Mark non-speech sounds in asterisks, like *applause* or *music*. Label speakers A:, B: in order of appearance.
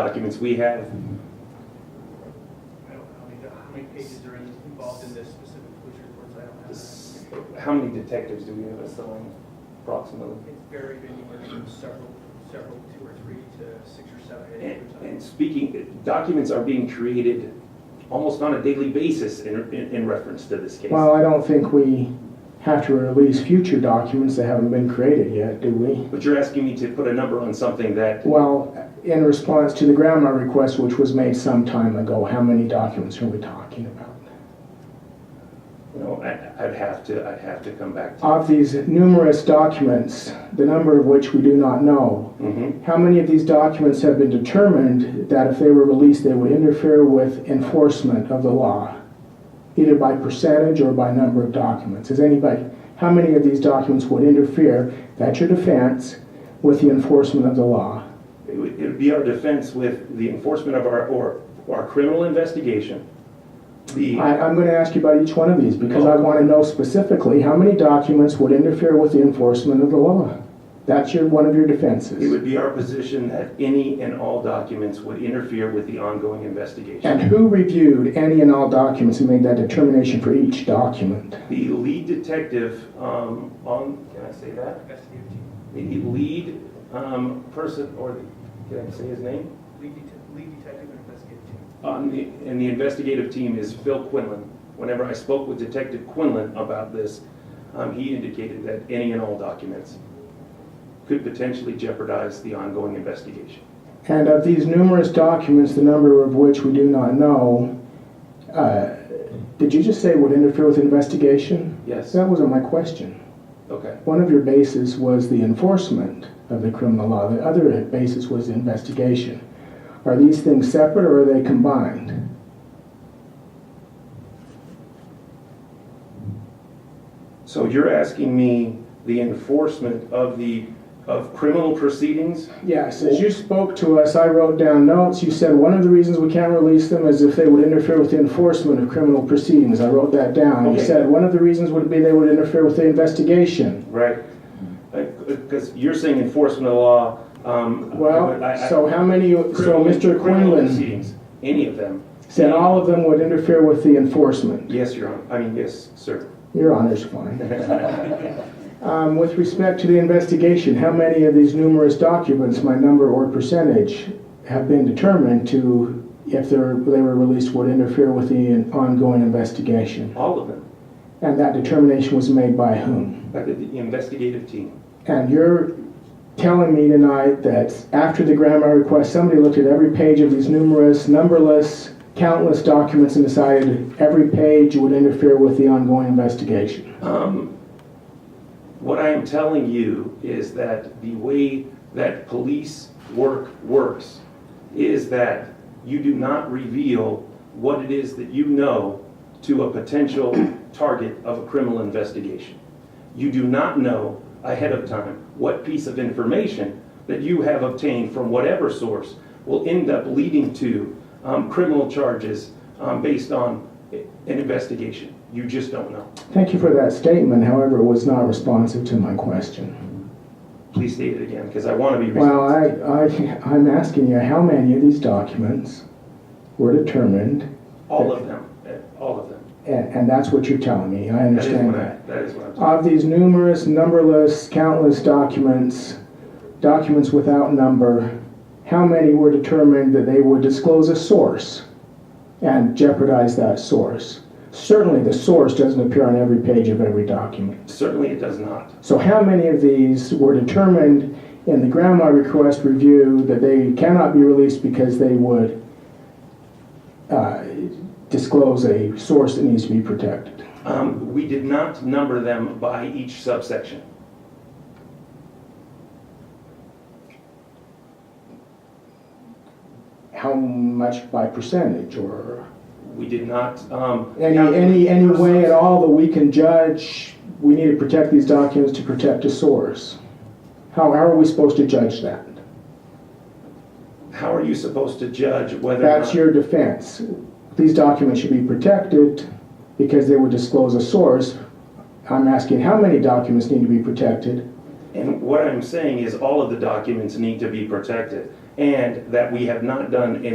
A: documents we have.
B: I don't know how many, how many pages are in- involved in this specific police reports, I don't have. that.
A: This- How many detectives do we have assigned approximately?
B: It's varied anywhere from several, several, two or three to six or seven, eight
A: And,
B: or something.
A: and speaking, documents are being created almost on a daily basis in, in, in reference to this case.
C: Well, I don't think we have to release future documents that haven't been created yet, do we?
A: But you're asking me to put a number on something that,
C: Well, in response to the grandma request, which was made some time ago, how many documents are we talking about?
A: you know, I, I'd have to, I'd have to come back to.
C: Of these numerous documents, the number of which we do not know,
A: Mhm.
C: how many of these documents have been determined that if they were released, they would interfere with enforcement of the law, either by percentage or by number of documents? Is anybody, how many of these documents would interfere, that's your defense, with the enforcement of the law?
A: It would, it would be our defense with the enforcement of our, or, our criminal investigation. The,
C: I, I'm going to ask you about each one of these because I want to know specifically how many documents would interfere with the enforcement of the law. That's your, one of your
A: it
C: defenses.
A: would be our position that any and all documents would interfere with the ongoing investigation.
C: And who reviewed any and all documents and made that determination for each document?
A: The lead detective, um, on, can I say that?
B: Investigative team,
A: the lead um, person, or the, can I say his name?
B: lead detective, lead detective and investigative team.
A: On the, and the investigative team is Phil Quinlan. Whenever I spoke with Detective Quinlan about this, um, he indicated that any and all documents could potentially jeopardize the ongoing investigation.
C: And of these numerous documents, the number of which we do not know, uh, did you just say would interfere with investigation?
A: Yes,
C: That wasn't my question.
A: okay.
C: One of your bases was the enforcement of the criminal law. The other basis was the investigation. Are these things separate or are they combined?
A: So you're asking me the enforcement of the, of criminal proceedings?
C: Yes, as you spoke to us, I wrote down notes. You said one of the reasons we can't release them is if they would interfere with the enforcement of criminal proceedings. I wrote that down. You
A: Okay.
C: said one of the reasons would be they would interfere with the investigation.
A: Right. Because you're saying enforcement of the law. um,
C: Well,
A: I- I-
C: so how many, so
A: Criminal-
C: Mr.
A: criminal
C: Quinlan
A: proceedings, Any of them.
C: said all of them would interfere with the enforcement.
A: Yes, Your Honor. I mean, yes, sir.
C: Your
A: *laughs*
C: honor's fine. Um, With respect to the investigation, how many of these numerous documents, my number or percentage, have been determined to, if they're, they were released, would interfere with the ongoing investigation?
A: All of them.
C: And that determination was made by whom?
A: By the the investigative team.
C: And you're telling me tonight that after the grandma request, somebody looked at every page of these numerous, numberless, countless documents and decided every page would interfere with the ongoing investigation?
A: Um, What I am telling you is that the way that police work works is that you do not reveal what it is that you know to a potential target of a criminal investigation. You do not know ahead of time what piece of information that you have obtained from whatever source will end up leading to um, criminal charges um, based on an investigation. You just don't know.
C: Thank you for that statement, however, it was not responsive to my question.
A: Please state it again, because I want to be.
C: Well, I, I, I'm asking you, how many of these documents were determined?
A: All of them, eh, all of them.
C: And, and that's what you're telling me, I
A: That is
C: understand
A: what I,
C: that.
A: that is what I'm talking.
C: Of these numerous, numberless, countless documents, documents without number, how many were determined that they would disclose a source and jeopardize that source? Certainly, the source doesn't appear on every page of every document.
A: Certainly it does not.
C: So how many of these were determined in the grandma request review that they cannot be released because they would uh, disclose a source that needs to be protected?
A: Um, we did not number them by each subsection.
C: How much by percentage or
A: We did not, um.
C: any,
A: count-
C: any, any way at all that we can judge, we need to protect these documents to protect a source? How, how are we supposed to judge that?
A: How are you supposed to judge whether or
C: That's
A: not-
C: your defense. These documents should be protected because they would disclose a source. I'm asking how many documents need to be protected?
A: And what I'm saying is all of the documents need to be protected. and that we have not done in